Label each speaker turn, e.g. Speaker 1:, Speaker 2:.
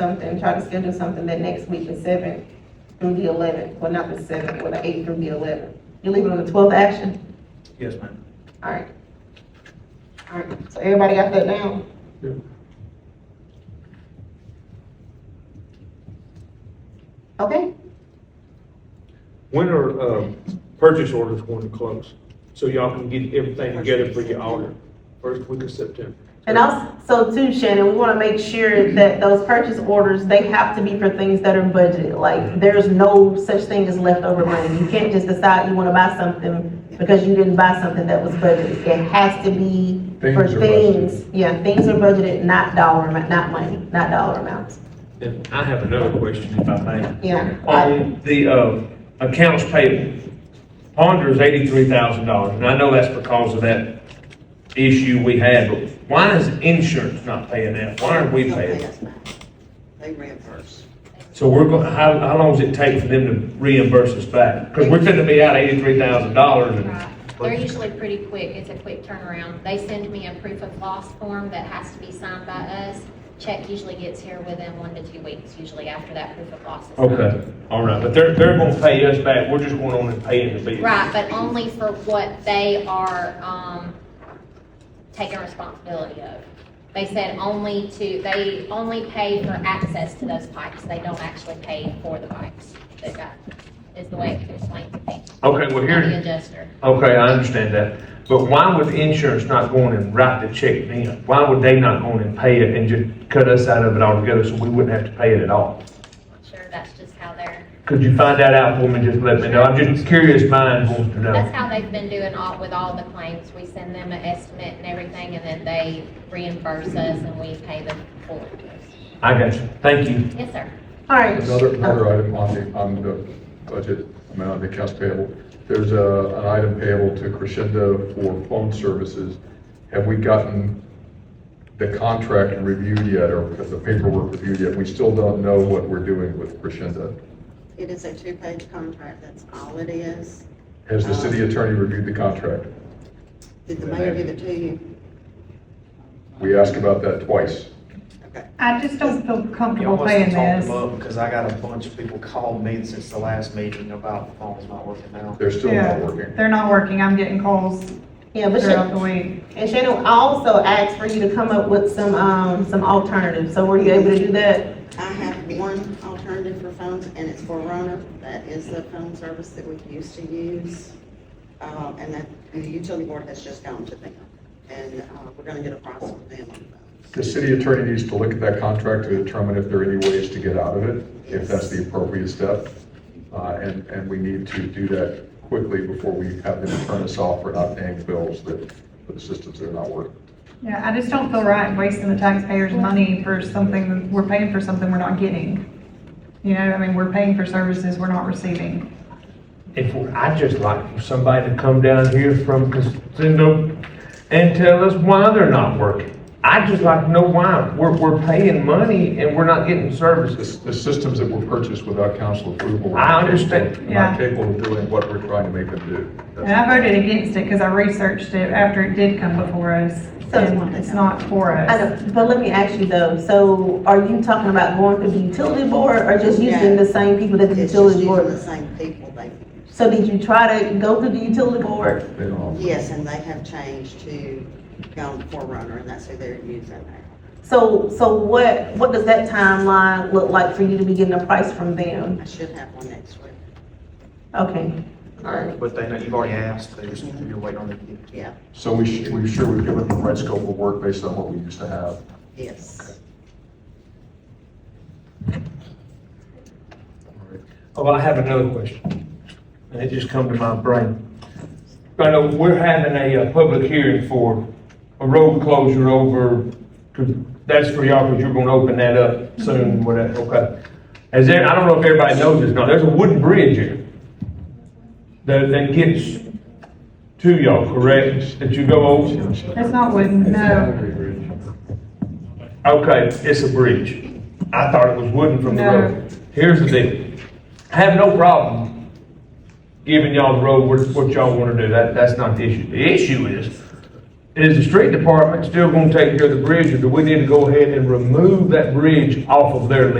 Speaker 1: something, try to schedule something that next week, the seventh through the eleventh, well, not the seventh, well, the eighth through the eleventh. You leaving on the twelfth action?
Speaker 2: Yes, ma'am.
Speaker 1: Alright. Alright, so everybody got that down?
Speaker 2: Yeah.
Speaker 1: Okay,
Speaker 3: When are, uh, purchase orders going to close? So y'all can get everything together for your order, first week of September.
Speaker 1: and also too, Shannon, we wanna make sure that those purchase orders, they have to be for things that are budgeted. Like, there's no such thing as leftover money. You can't just decide you wanna buy something because you didn't buy something that was budgeted. It has to be for
Speaker 4: Things are budgeted.
Speaker 1: things. Yeah, things are budgeted, not dollar, amount, not money, not dollar amounts.
Speaker 3: And I have another question, if I may.
Speaker 1: Yeah. I-
Speaker 3: On the, uh, accounts payable, Ponder is eighty-three thousand dollars, and I know that's because of that issue we had, but why is insurance not paying that? Why aren't we paying? it?
Speaker 5: They reimburse.
Speaker 3: So we're going, how, how long does it take for them to reimburse us back? Because we're gonna be out eighty-three thousand dollars and
Speaker 6: Right. They're usually pretty quick. It's a quick turnaround. They send me a proof of loss form that has to be signed by us. Check usually gets here within one to two weeks, usually after that proof of loss is signed.
Speaker 3: Okay, all right, but they're, they're gonna pay us back, we're just going on and paying the bill.
Speaker 6: Right, but only for what they are, um, taking responsibility of. They said only to, they only pay for access to those pipes. They don't actually pay for the pipes that got, is the way it explained to me.
Speaker 3: Okay, well,
Speaker 6: Not the
Speaker 3: here,
Speaker 6: adjuster.
Speaker 3: okay, I understand that, but why would insurance not go on and write the check then? Why would they not go on and pay it and just cut us out of it altogether so we wouldn't have to pay it at all?
Speaker 6: Sure, that's just how they're
Speaker 3: Could you find that out for me, just let me know, I'm just curious, mine wants to know.
Speaker 6: That's how they've been doing all, with all the claims. We send them an estimate and everything, and then they reimburse us and we pay them full interest.
Speaker 3: I got you, thank you.
Speaker 6: Yes, sir.
Speaker 1: Alright.
Speaker 4: Another, another item on the, on the budget amount, the accounts payable, there's a, an item payable to Crescendo for phone services. Have we gotten the contract reviewed yet, or the paperwork reviewed yet? We still don't know what we're doing with Crescendo.
Speaker 5: It is a two-page contract, that's all it is.
Speaker 4: Has the city attorney reviewed the contract?
Speaker 5: Did the mayor give it to you?
Speaker 4: We asked about that twice.
Speaker 5: Okay.
Speaker 7: I just don't feel
Speaker 2: You
Speaker 7: comfortable
Speaker 2: almost
Speaker 7: paying
Speaker 2: talked
Speaker 7: this.
Speaker 2: them up because I got a bunch of people call me since the last meeting about the phone's not working now.
Speaker 4: They're still
Speaker 7: Yeah,
Speaker 4: not working.
Speaker 7: They're not working, I'm getting calls
Speaker 1: Oh, Yeah, but
Speaker 7: throughout the
Speaker 1: Shannon,
Speaker 7: week.
Speaker 1: and Shannon, I also asked for you to come up with some, um, some alternatives, so were you able to do that?
Speaker 5: I have one alternative for phones, and it's for Roner. That is the phone service that we used to use. Uh, and that, the utility board has just gone to them, and, uh, we're gonna get a price from them on that.
Speaker 4: The city attorney needs to look at that contract to determine if there are any ways to get out of it, if that's the appropriate step. Uh, And, and we need to do that quickly before we have them turn us off for not paying bills that, for the systems that are not working.
Speaker 7: Yeah, I just don't feel right wasting the taxpayers' money for something, we're paying for something we're not getting. You know, I mean, we're paying for services we're not receiving.
Speaker 3: If, we- I'd just like for somebody to come down here from Casino and tell us why they're not working. I'd just like to know why. We're, we're paying money and we're not getting
Speaker 4: The,
Speaker 3: services.
Speaker 4: the systems that were purchased without council approval. are
Speaker 3: I understand.
Speaker 4: capable- Not
Speaker 7: Yeah.
Speaker 4: capable of doing what we're trying to make them do.
Speaker 7: And I voted against it because I researched it after it did come before us.
Speaker 1: So-
Speaker 7: And it's not for
Speaker 1: I
Speaker 7: us.
Speaker 1: know, but let me ask you though, so are you talking about going through the utility board, or just using the same people that the
Speaker 5: It's just
Speaker 1: utility
Speaker 5: using the
Speaker 1: board?
Speaker 5: same people, they,
Speaker 1: So did you try to go through the utility board?
Speaker 4: They don't offer.
Speaker 5: yes, and they have changed to gone for Roner, and that's who they're using now.
Speaker 1: So, so what, what does that timeline look like for you to be getting a price from them?
Speaker 5: I should have one next week,
Speaker 1: Okay, alright,
Speaker 2: But they know, you've already asked, they just, you're waiting on them to get it to you.
Speaker 5: yeah,
Speaker 4: So we should, we sure we've given them the right scope of work based on what we used to have.
Speaker 5: yes.
Speaker 3: Oh, I have another question. And it just come to my brain. I know we're having a, uh public hearing for a road closure over, 'cause that's for y'all, because you're gonna open that up soon, whatever, okay? Is there, I don't know if everybody knows this, no, there's a wooden bridge here that, that gets to y'all, correct? That you go over?
Speaker 7: It's not wooden, no.
Speaker 3: Okay, it's a bridge. I thought it was wooden from the
Speaker 7: No.
Speaker 3: road. Here's the deal. I have no problem giving y'all the road what, what y'all wanna do. That, that's not the issue. The issue is, Is the street department still gonna take care of the bridge, or do we need to go ahead and remove that bridge off of their list?